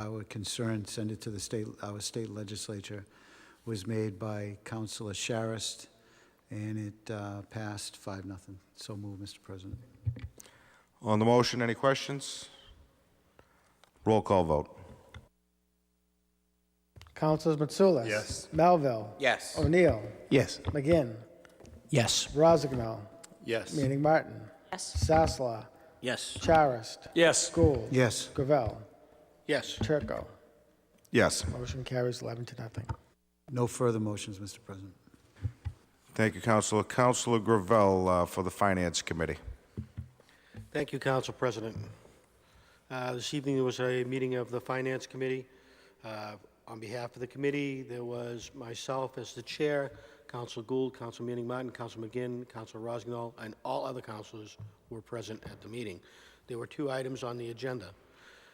our concern, send it to the state, our state legislature, was made by Councilor Sharist, and it uh, passed five, nothing. So moved, Mr. President. On the motion, any questions? Roll call vote. Councilors Mitsoulas. Yes. Melville. Yes. O'Neill. Yes. McGinn. Yes. Rozignol. Yes. Meaning Martin. yes, Sasla. Yes. Charist. Yes. Gould. Yes. Gravel. Yes. Turco. Yes. Motion carries 11 to nothing. No further motions, Mr. President. Thank you, Counselor. Counselor Gravel uh, for the Finance Committee. Thank you, Council President. Uh, This evening, there was a meeting of the Finance Committee. Uh, On behalf of the committee, there was myself as the chair, Council Gould, Council Manning Martin, Council McGinn, Council Rossignol, and all other councilors were present at the meeting. There were two items on the agenda.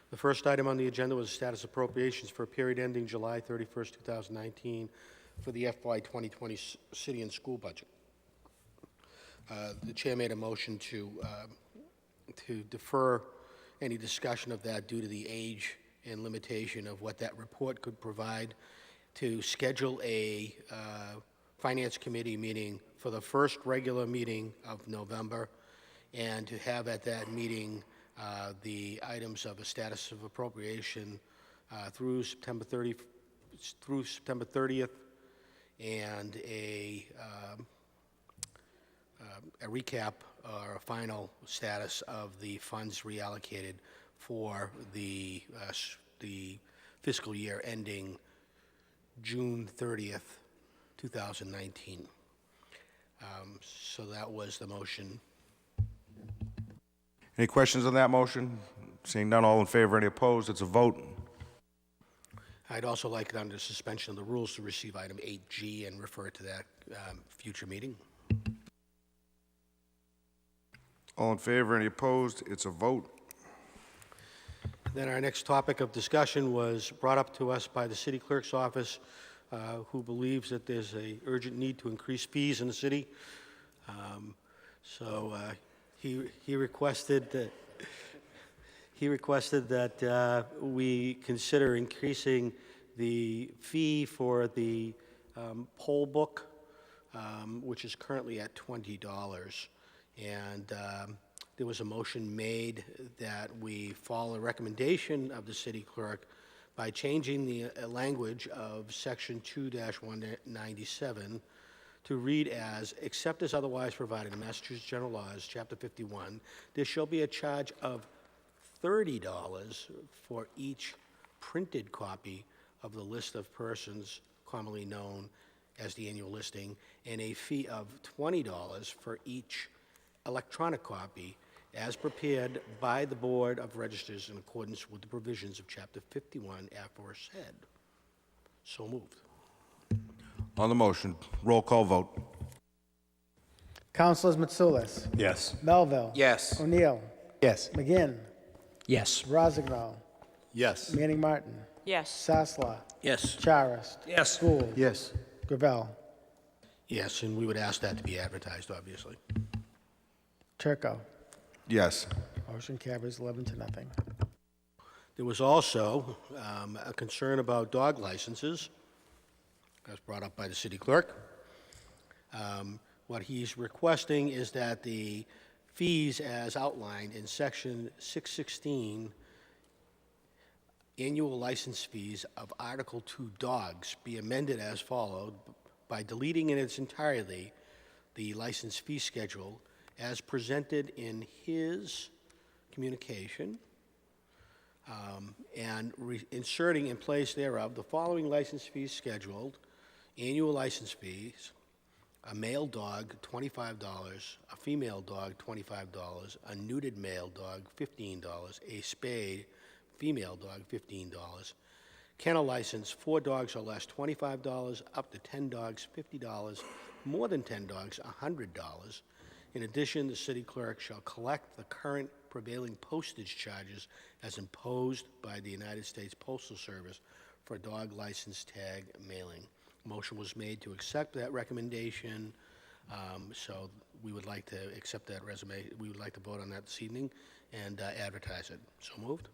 The first item on the agenda was status appropriations for a period ending July 31st, 2019, for the FY 2020 s- city and school budget. Uh, The chair made a motion to uh, to defer any discussion of that due to the age and limitation of what that report could provide, to schedule a uh, Finance Committee meeting for the first regular meeting of November, and to have at that meeting uh, the items of a status of appropriation uh, through September 30, through September 30th, and a um, a recap or a final status of the funds reallocated for the, uh, s- the fiscal year ending June 30th, 2019. Um, So that was the motion. Any questions on that motion? Seeing none, all in favor, any opposed? It's a vote. I'd also like it under suspension of the rules to receive item 8G and refer it to that um, future meeting. All in favor, any opposed? It's a vote. Then our next topic of discussion was brought up to us by the city clerk's office, uh, who believes that there's a urgent need to increase fees in the city. Um, So uh, he he requested that, he requested that uh, we consider increasing the fee for the um, poll book, um, which is currently at $20. And um, there was a motion made that we follow the recommendation of the city clerk by changing the uh, language of Section 2-197 to read as, except as otherwise provided in Massachusetts General Laws, Chapter 51, there shall be a charge of $30 for each printed copy of the list of persons commonly known as the annual listing, and a fee of $20 for each electronic copy as prepared by the Board of Registers in accordance with the provisions of Chapter 51 aforesaid. So moved. On the motion, roll call vote. Councilors Mitsoulas. Yes. Melville. Yes. O'Neill. Yes. McGinn. Yes. Rozignol. Yes. Manning Martin. yes, Sasla. Yes. Charist. Yes. Gould. Yes. Gravel. Yes, and we would ask that to be advertised, obviously. Turco. Yes. Motion carries 11 to nothing. There was also um, a concern about dog licenses, as brought up by the city clerk. Um, What he's requesting is that the fees as outlined in Section 616, annual license fees of Article 2 dogs, be amended as followed by deleting in its entirety the license fee schedule as presented in his communication and re- inserting in place thereof the following license fees scheduled, annual license fees, a male dog, $25, a female dog, $25, a neutered male dog, $15, a spayed female dog, $15, kennel license, four dogs or less, $25, up to 10 dogs, $50, more than 10 dogs, $100, in addition, the city clerk shall collect the current prevailing postage charges as imposed by the United States Postal Service for dog license tag mailing. Motion was made to accept that recommendation, um, so we would like to accept that resume, we would like to vote on that this evening and uh, advertise it. So moved?